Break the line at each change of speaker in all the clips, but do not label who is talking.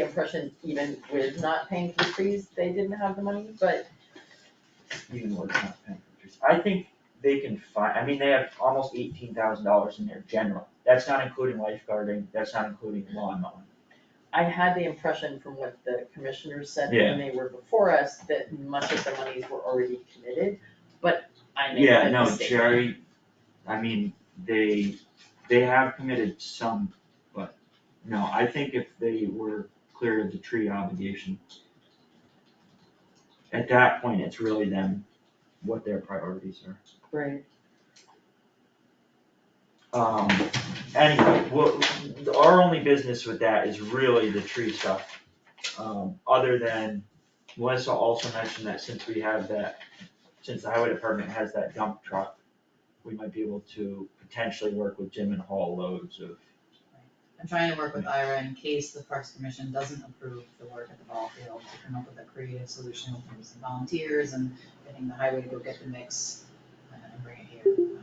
the impression even with not paying for trees, they didn't have the money, but
even though it's not paying for trees. I think they can find, I mean, they have almost eighteen thousand dollars in their general, that's not including lifeguarding, that's not including lawn mowing.
I had the impression from what the commissioners said
Yeah.
when they were before us, that much of the monies were already committed, but I made
Yeah,
that
no,
mistake.
Jerry, I mean, they, they have committed some, but, no, I think if they were clear of the tree obligation, at that point, it's really them, what their priorities are.
Right,
Um, anyway, what, our only business with that is really the tree stuff. Um, other than, Melissa also mentioned that since we have that, since the highway department has that dump truck, we might be able to potentially work with Jim and haul loads of,
I'm trying to work with Ira in case the Parks Commission doesn't approve the work at the ball field, to come up with a creative solution with some volunteers and getting the highway to go get the mix uh, and bring it here.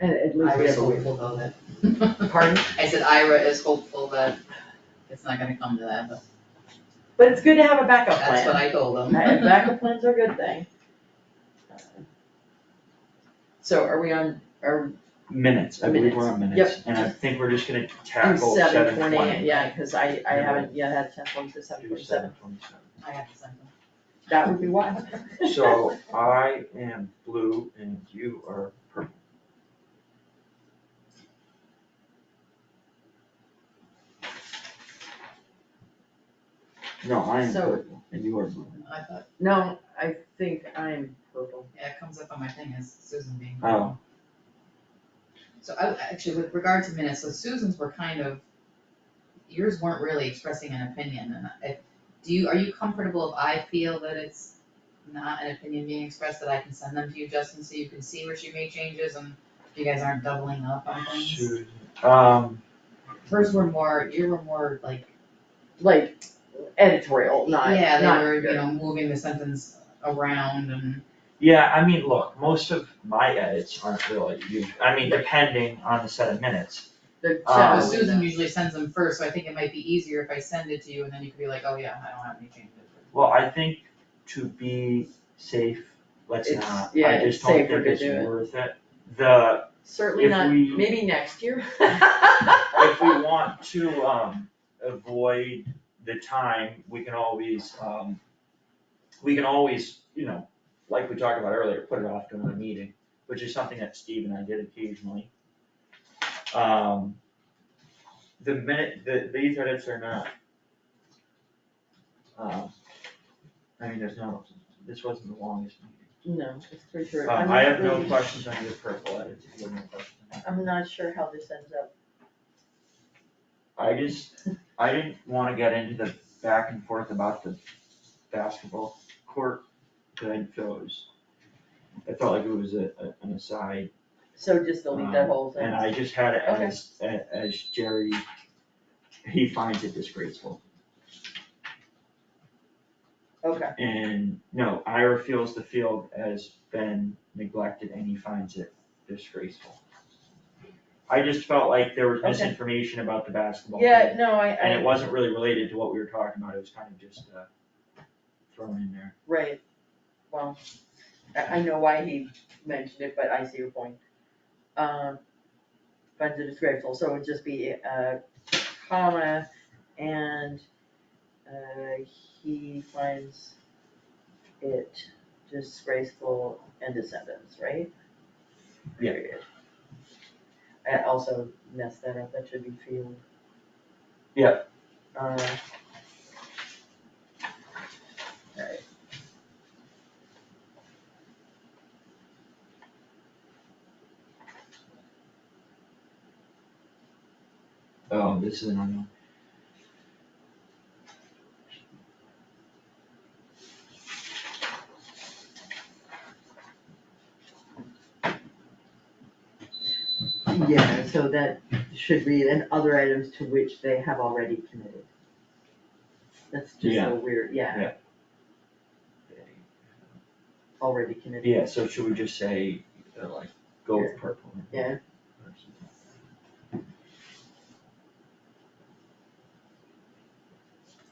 and at least
Um,
we
Ira's
have a way.
hopeful though that.
Pardon?
I said Ira is hopeful that it's not gonna come to that, but
But it's good to have a backup
that's what
plan,
I told him.
and backup plans are a good thing. So are we on, are,
minutes, I believe we're on
Minutes,
minutes. And I think we're just gonna tackle
seven
seven
twenty,
twenty.
yeah, cause I, I
Yeah.
haven't yet had a chance to look to seven
Do
twenty seven,
seven twenty-seven.
I have to send him.
that would be wild.
So I am blue and you are purple. No, I am
So-
purple and you are blue.
I thought,
No, I think I'm purple.
yeah, it comes up on my thing as Susan being.
Oh.
So I, actually, with regard to minutes, so Susan's were kind of, yours weren't really expressing an opinion, and I, do you, are you comfortable if I feel that it's not an opinion being expressed, that I can send them to you, Justin, so you can see where she made changes and you guys aren't doubling up on things?
Susan. Um,
Hers were more, you were more like,
Like editorial, not,
yeah,
not
they were, you
good.
know, moving the sentence around and,
yeah, I mean, look, most of my edits aren't really, you, I mean, depending on the set of minutes.
The
Oh.
so
general-
Susan usually sends them first, so I think it might be easier if I send it to you, and then you could be like, oh yeah, I don't have any changes.
Well, I think to be safe, let's
It's-
not,
yeah,
I
it's
just don't
safer
think
to
it's
do it.
worth it. The,
Certainly
if
not,
we-
maybe next year.
if we want to, um, avoid the time, we can always, um, we can always, you know, like we talked about earlier, put it off to another meeting, which is something that Steve and I did occasionally. Um, the minute, the, these edits are not, um, I mean, there's no, this wasn't the longest meeting.
No, it's pretty sure.
Um,
I'm
I
not
have no
really-
questions on your purple edits, if you have no questions on that.
I'm not sure how this ends up.
I just, I didn't wanna get into the back and forth about the basketball court, cause I feel it was, I felt like it was a, a- an aside,
So just delete that
Um,
whole
and
thing.
I just had it
Okay.
as, a- as Jerry, he finds it disgraceful.
Okay,
And, no, Ira feels the field has been neglected and he finds it disgraceful. I just felt like there was
Okay.
misinformation about the basketball. court.
yeah, no, I,
And it
I,
wasn't really related to what we were talking about, it was kind of just, uh, thrown in there.
right, well, I, I know why he mentioned it, but I see your point. Um, But it's disgraceful, so it would just be a comma and, uh, he finds it disgraceful and a sentence, right?
Yeah.
Period. I also messed that up, that should be field.
Yeah.
Uh, Alright.
Oh, this is an unknown.
Yeah, so that should read, and other items to which they have already committed. That's just
Yeah.
so weird, yeah, already committed.
Yeah, so should we just say, uh, like, go with purple?
Yeah.